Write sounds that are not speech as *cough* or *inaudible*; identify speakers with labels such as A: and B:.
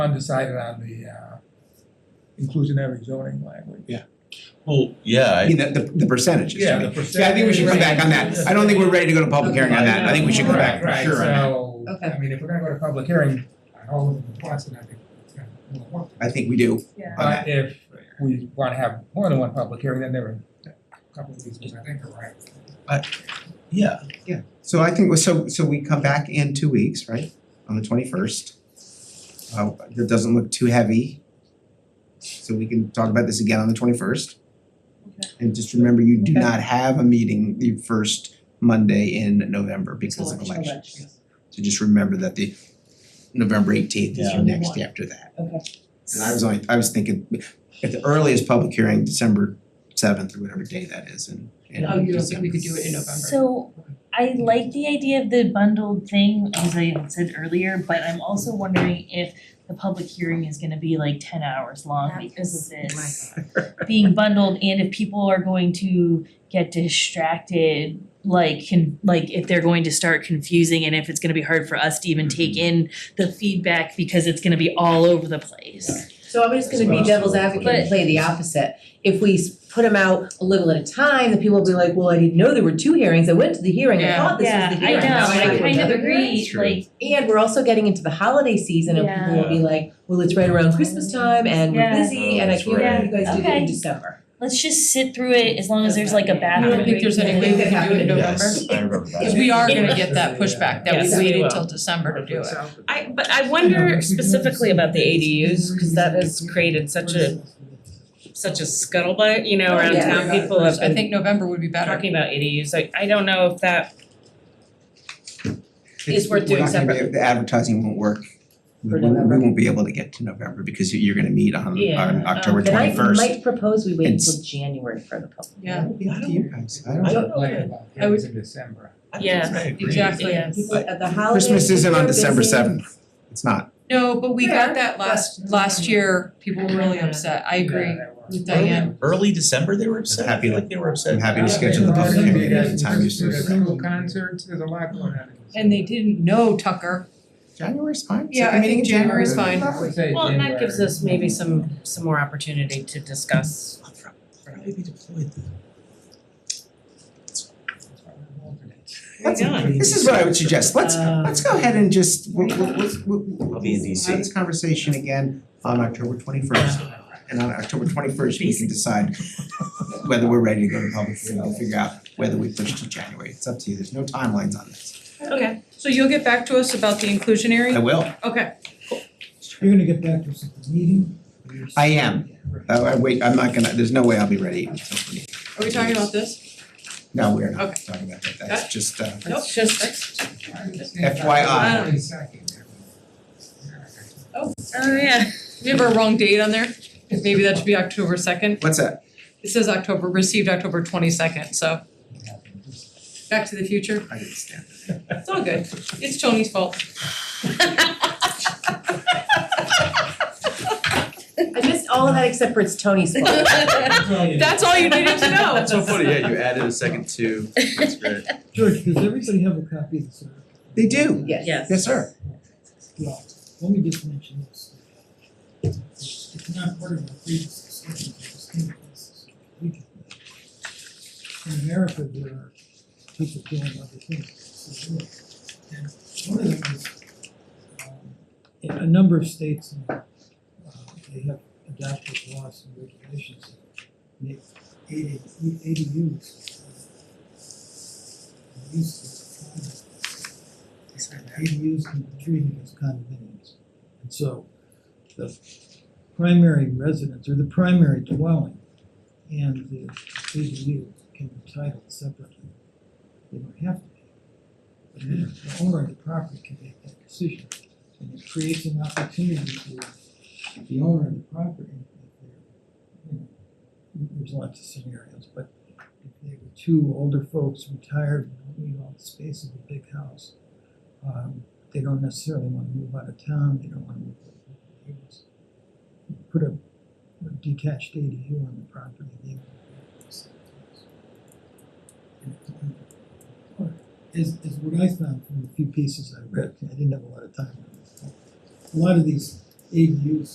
A: undecided on the uh, inclusionary zoning language.
B: Well, yeah,
C: I
B: I-
C: mean, the the the percentages.
A: Yeah,
C: I mean.
A: the percentage.
C: Yeah, I think we should come back on that. I don't think we're ready to go to public hearing on that. I think we should come back for
A: Right,
C: sure on that.
A: Right, so,
D: Okay.
A: I mean, if we're gonna go to public hearing on all of them at once, then I think it's gonna be more work.
C: I think we do.
D: Yeah.
C: on that.
A: But if we wanna have more than one public hearing, then there are a couple of these, which I think are right.
B: yeah,
C: So I think, so so we come back in two weeks, right, on the twenty first. Uh, that doesn't look too heavy. So we can talk about this again on the twenty first.
D: Okay.
C: And just remember, you do
D: Okay.
C: not have a meeting the first Monday in November because of
D: Election.
C: elections. So just remember that the November eighteenth is
B: Yeah.
C: your next after that.
D: Okay.
C: And I was only, I was thinking, at the earliest public hearing, December seventh or whatever day that is in in
E: Oh, you don't think we could do
C: December.
E: it in November?
F: So I like the idea of the bundled thing, as I had said earlier, but I'm also wondering if the public hearing is gonna be like ten hours long
D: That
F: because of
D: is my
F: this being bundled and if people are going to get distracted, like can, like if they're going to start confusing and if it's gonna be hard for us to even take
C: Mm-hmm.
F: in the feedback because it's gonna be all over the place.
D: So I'm just gonna be devil's advocate and play the opposite. If we s- put them out a little at a time, the people will be like, well, I didn't know there were two hearings, I went to the hearing, I
E: Yeah.
D: thought this was the hearing. now
F: Yeah, I know, I
D: have
F: kind of
D: another
F: agree,
C: True.
F: like,
D: hearing." And we're also getting into the holiday season and people will be like, well, it's right around Christmas time and we're
F: Yeah.
D: busy and I
B: That's
D: can't
F: right.
D: believe you guys did it
F: Okay.
D: in December.
F: let's just sit through it as long as there's like a
E: You
F: bathroom
E: don't think there's any way we could do it in November?
B: yes, I remember that.
E: Cause we are gonna get that pushback that we
D: Yes,
G: we will.
E: waited till December to do it.
G: I but I wonder specifically about the ADUs, cause that has created such a such a scuttlebutt, you know, around
D: Yeah.
G: town, people have
E: I
G: been
E: think November would be better.
G: talking about ADUs, I I don't know if that, It's worth doing
C: We're not gonna be, the advertising won't work. We
D: For
C: we- we
D: November.
C: won't be able to get to November because you- you're gonna meet on
G: Yeah,
C: on
G: um,
C: October
G: then
C: twenty first.
D: And I might propose we wait
C: It's-
D: until January for the public.
E: Yeah.
C: It'll be up to you guys. I
B: I
C: don't,
B: don't-
A: Like about
E: I would-
A: hearings in December.
G: yeah,
B: agree.
E: exactly.
G: Yes.
D: People at the holidays,
C: Christmas isn't on
D: people are
C: December
D: busy.
C: seventh. It's not.
E: No, but we got
D: Fair,
E: that last last year, people were really upset, I agree with
B: Early-
E: Diane.
B: Early December, they were upset, I
C: Happy-
B: feel like they were upset.
C: I'm happy to schedule the public hearing at the time you
A: There's
C: suggest.
A: single concerts, there's a lot going on.
E: And they didn't know Tucker,
C: January's fine.
E: Yeah,
C: Second
E: I
C: meeting
E: think
C: in January.
E: January's fine.
A: I would say
G: Well, and that gives
A: January.
G: us maybe some some more opportunity to discuss.
B: I'll prob- Probably be deployed then.
A: That's why we're alternates.
C: Let's-
G: Why not?
C: This is what I would suggest. Let's
G: Uh,
C: let's go ahead and just we'll we'll let's we'll we'll-
B: I'll be in
C: we'll
B: DC.
C: have this conversation again on October twenty first. And on October twenty first, we can decide whether we're ready to go to public hearing. We'll figure out whether we push to January. It's up to you. There's no timelines on this.
G: Okay, so you'll get back to us about the
C: I
G: inclusionary?
C: will.
G: Okay,
H: You're gonna get back to us at the meeting?
C: I am. Oh, I wait, I'm not gonna, there's no way I'll be ready until twenty.
E: are we talking about this?
C: No, we're not
E: Okay.
C: talking about that. That's just uh
E: Nope,
G: it's just,
C: FYI.
A: Wait a
G: *laughs*
A: second.
G: oh yeah,
E: we have a wrong date on there, 'Cause maybe that should be October second,
C: what's that?
E: it says October, received October twenty second, so back to the future,
C: I didn't stand it.
E: it's all good, it's Tony's fault.
D: I missed all of that except for it's Tony's
C: *laughs*
D: fault.
E: That's all you needed to know.
B: That's so funny, yeah, you added a second two, that's great.
H: George, does everybody have a copy of this?
C: They do.
D: Yes.
C: Yes, sir.
H: Well, let me just mention this. It's not part of the previous discussion, but it's in this. We can- In America, there are people doing other things. And one of them is, um, in a number of states, uh, they have adopted laws and regulations that make AD ADUs. uh, Used to ADUs can be treated as condominiums. And so the primary residence or the primary dwelling and the ADU can be titled separately. They don't have to be. But the- the owner of the property can make that decision. And it creates an opportunity for the owner of the property. if they're, you know, There's lots of scenarios, but if they were two older folks, retired, don't need all the space of a big house, um, they don't necessarily wanna move out of town, they don't wanna move. out of the neighborhoods. Put a a detached ADU on the property, they. would be able to sell it. Is is what I found from the few pieces I read, I didn't have a lot of time on this, but a lot of these ADUs